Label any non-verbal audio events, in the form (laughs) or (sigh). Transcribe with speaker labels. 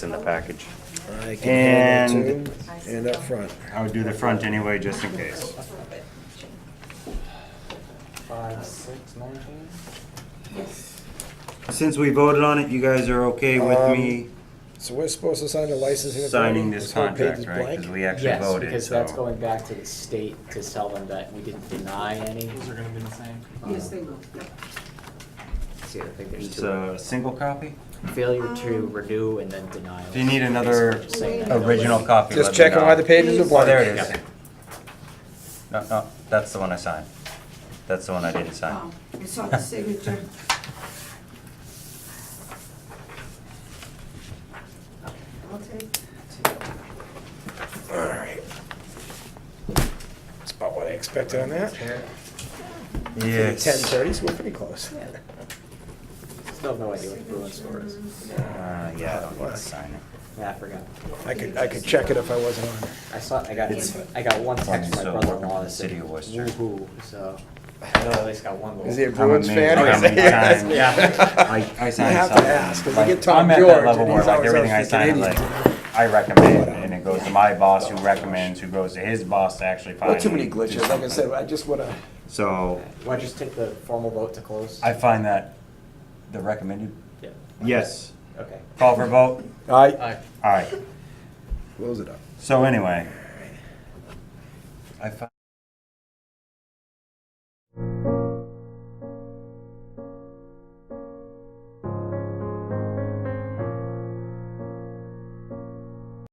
Speaker 1: in the package.
Speaker 2: I can handle
Speaker 1: And-
Speaker 2: two and up front.
Speaker 1: I would do the front anyway, just in case.
Speaker 3: Five, six, nineteen?
Speaker 1: Since we voted on it, you guys are okay
Speaker 2: Um,
Speaker 1: with me
Speaker 2: So we're supposed to sign the licensing. authority?
Speaker 1: signing this
Speaker 2: whole page
Speaker 1: contract,
Speaker 2: is
Speaker 1: right?
Speaker 2: blank?
Speaker 1: Because we actually
Speaker 3: Yes,
Speaker 1: voted,
Speaker 3: because that's
Speaker 1: so.
Speaker 3: going back to the state to tell them that we didn't deny any.
Speaker 4: Those are gonna be the same.
Speaker 5: Yes, they will.
Speaker 3: See, I think there's
Speaker 1: It's
Speaker 3: two,
Speaker 1: a single copy?
Speaker 3: failure to
Speaker 5: Um,
Speaker 3: renew and then denial.
Speaker 1: Do you need another
Speaker 3: Saying that-
Speaker 1: original copy?
Speaker 2: Just
Speaker 1: let me
Speaker 2: checking
Speaker 1: know.
Speaker 2: why the pages are
Speaker 1: Oh,
Speaker 2: blank.
Speaker 1: there it is.
Speaker 3: Yeah.
Speaker 1: No, no, that's the one I signed. That's the one I didn't sign.
Speaker 5: Oh, It's on the
Speaker 1: (laughs)
Speaker 5: signature. I'll take
Speaker 2: All right. That's about what I expected on that.
Speaker 1: Yes.
Speaker 2: Ten thirty, so we're pretty close.
Speaker 3: Still have no idea what the Bruin score is.
Speaker 1: Uh, yeah, I don't need to sign it.
Speaker 3: Yeah, I forgot.
Speaker 2: I could, I could check it if I wasn't on there.
Speaker 3: I saw, I got,
Speaker 1: It's-
Speaker 3: I got one text from
Speaker 1: So,
Speaker 3: my brother-in-law that
Speaker 1: City
Speaker 3: said,
Speaker 1: of Worcester.
Speaker 3: woohoo, so, I know I at least got one.
Speaker 2: Is he
Speaker 3: vote.
Speaker 2: a Bruins
Speaker 1: I'm amazed
Speaker 2: fan?
Speaker 1: how many times-
Speaker 3: Yeah.
Speaker 1: I, I
Speaker 2: You
Speaker 1: signed
Speaker 2: have to
Speaker 1: something.
Speaker 2: ask, 'cause you
Speaker 1: Like,
Speaker 2: get Tom
Speaker 1: I'm at that
Speaker 2: George,
Speaker 1: level
Speaker 2: and
Speaker 1: where,
Speaker 2: he's
Speaker 1: like,
Speaker 2: always
Speaker 1: everything I
Speaker 2: asking
Speaker 1: sign,
Speaker 2: idiots.
Speaker 1: like, I recommend, and it goes to my boss who recommends, who goes to his boss to actually find.
Speaker 2: Well, too many
Speaker 1: me.
Speaker 2: glitches, like I said, I just wanna,
Speaker 1: So,
Speaker 3: Why don't you just take the formal vote to close?
Speaker 1: I find that the recommended,
Speaker 3: Yeah,
Speaker 1: yes,
Speaker 3: okay.
Speaker 1: call for vote,
Speaker 2: I,
Speaker 1: alright,
Speaker 2: close it up.
Speaker 1: so anyway. I find